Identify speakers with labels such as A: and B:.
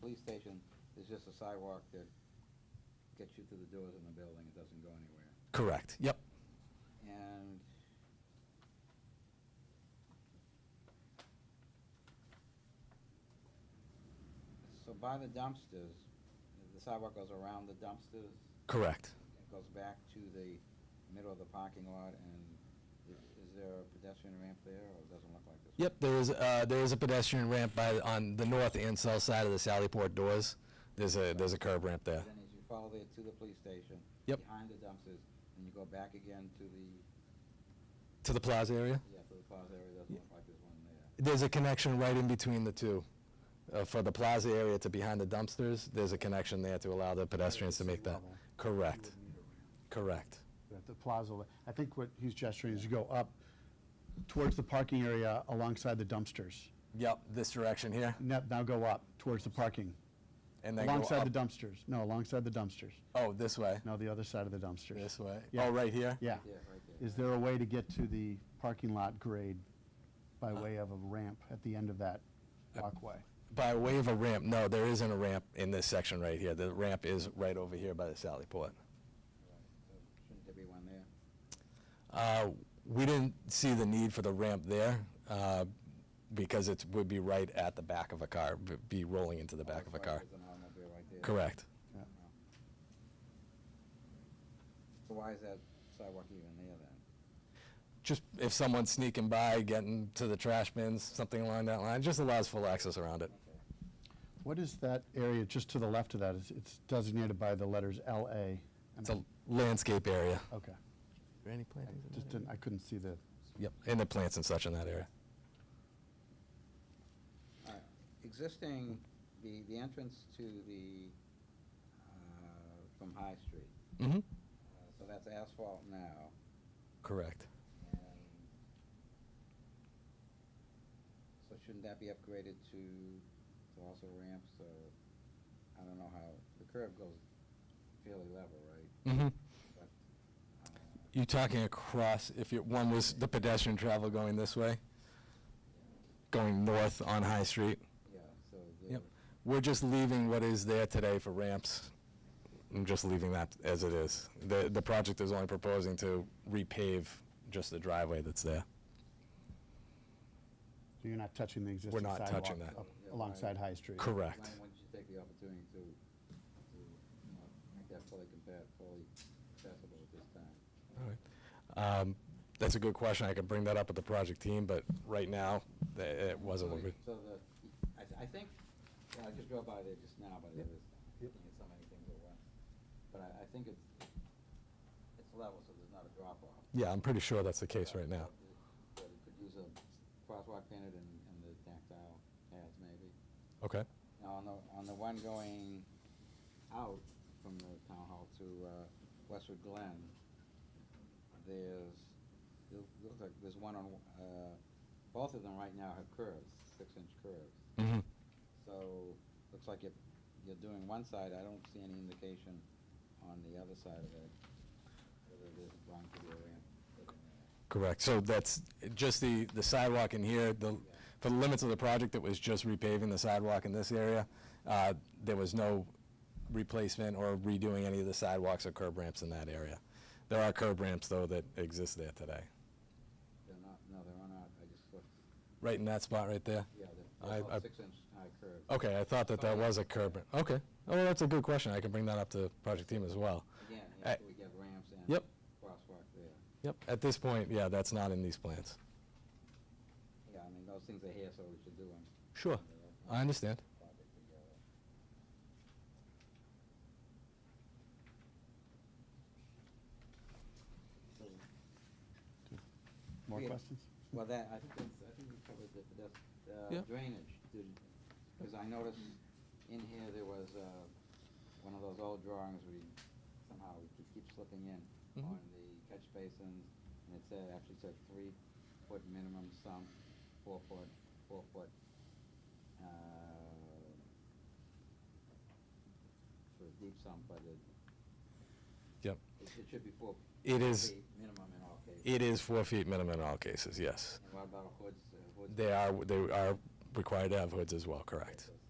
A: police station is just a sidewalk that gets you to the doors in the building, it doesn't go anywhere.
B: Correct, yep.
A: And so by the dumpsters, the sidewalk goes around the dumpsters,
B: Correct.
A: it goes back to the middle of the parking lot, and i- is there a pedestrian ramp there, or it doesn't look like this?
B: Yep, there is, uh, there is a pedestrian ramp by, on the north and south side of the Sallyport doors. There's a, there's a curb ramp there.
A: Then as you follow there to the police station.
B: Yep.
A: Behind the dumpsters, and you go back again to the,
B: To the plaza area?
A: yeah, to the plaza area, doesn't look like there's one there.
B: There's a connection right in between the two. Uh, For the plaza area to behind the dumpsters, there's a connection there to allow the pedestrians to make that.
C: Level.
B: Correct,
C: You would need a ramp.
B: correct.
C: At the plaza, I think what he's gesturing is you go up towards the parking area alongside the dumpsters.
B: Yep, this direction here,
C: Now, now go up towards the parking,
B: and then go
C: alongside the
B: up.
C: dumpsters. No, alongside the dumpsters.
B: Oh, this way,
C: No, the other side of the dumpsters.
B: this way.
C: Yeah.
B: Oh, right here?
C: Yeah.
A: Yeah, right there.
C: Is there a way to get to the parking lot grade by way of a ramp at the end of that walkway?
B: By way of a ramp, no, there isn't a ramp in this section right here. The ramp is right over here by the Sallyport.
A: Right, so Shouldn't there be one there?
B: Uh, We didn't see the need for the ramp there uh, because it would be right at the back of a car, b- be rolling into the back of a car.
A: There's an automobile right there.
B: Correct.
C: Yeah.
A: So why is that sidewalk even there then?
B: Just if someone's sneaking by, getting to the trash bins, something along that line, just allows full access around it.
A: Okay.
C: What is that area just to the left of that? It's- It's designated by the letters LA.
B: It's a landscape area.
C: Okay.
B: Any
C: I Just didn't, I couldn't see the,
B: Yep, and the plants and such in that area.
A: Uh, Existing, the, the entrance to the, uh, from High Street,
B: Mm-hmm.
A: Uh, so that's asphalt now,
B: Correct.
A: and so shouldn't that be upgraded to, to also ramps, or, I don't know how, the curve goes fairly level, right?
B: Mm-hmm.
A: But, uh,
B: You talking across, if you, one was the pedestrian travel going this way, going north on High Street?
A: Yeah, so. the-
B: Yep. We're just leaving what is there today for ramps. I'm just leaving that as it is. The, the project is only proposing to repave just the driveway that's there.
C: so you're not touching the existing
B: not
C: sidewalk?
B: touching that.
C: up Alongside High Street?
B: Correct.
A: Why wouldn't you take the opportunity to, to you know, make that fully compa- fully accessible at this time?
B: Um, That's a good question. I could bring that up with the project team, but right now, th- it wasn't. what we-
A: So the, I, th- I think, yeah, I just drove by there just now, but it was, you
C: Yep.
A: get so many things at once. But I, I think it's, it's level, so there's not a drop off.
B: Yeah, I'm pretty sure that's the case right now.
A: But it could use a crosswalk painted and, and the tactile pads maybe.
B: Okay.
A: Now, on the, on the one going out from the town hall to uh, Westwood Glen, there's, it looks like there's one on, uh, both of them right now have curves, six-inch curves.
B: Mm-hmm.
A: So, looks like you're, you're doing one side, I don't see any indication on the other side of it, whether there's going to be a ramp.
B: Correct. So that's just the, the sidewalk in here, the, for the limits of the project, it was just repaving the sidewalk in this area. Uh, There was no replacement or redoing any of the sidewalks or curb ramps in that area. There are curb ramps, though, that exist there today.
A: They're not, no, they're not, I just looked,
B: Right in that spot right there?
A: yeah, they're-
B: I-
A: they're
B: I-
A: all six-inch high curves.
B: Okay, I thought that that was a curb. ramp. Okay. Oh, well, that's a good question. I can bring that up to project team as well.
A: Again,
B: I-
A: after we get ramps and
B: Yep.
A: crosswalk there.
B: Yep, at this point, yeah, that's not in these plans.
A: Yeah, I mean, those things are here, so we should do them.
B: Sure. I understand.
C: More
A: Yeah.
C: questions?
A: Well, that, I think that's, I think we covered the, pedes- uh
B: Yeah.
A: drainage, because I noticed in here there was, uh, one of those old drawings we somehow we keep- keep slipping in
B: Mhm.
A: on the catch basins, and it said, actually said three foot minimum sump, four foot, four foot, uh, for a deep sump, but it,
B: Yep.
A: it it should be four.
B: It is-
A: feet Minimum in all cases.
B: It is four feet minimum in all cases, yes.
A: And what about hoods? uh, hoods?
B: They are, they are required to have hoods as well, correct?
A: Okay, so it's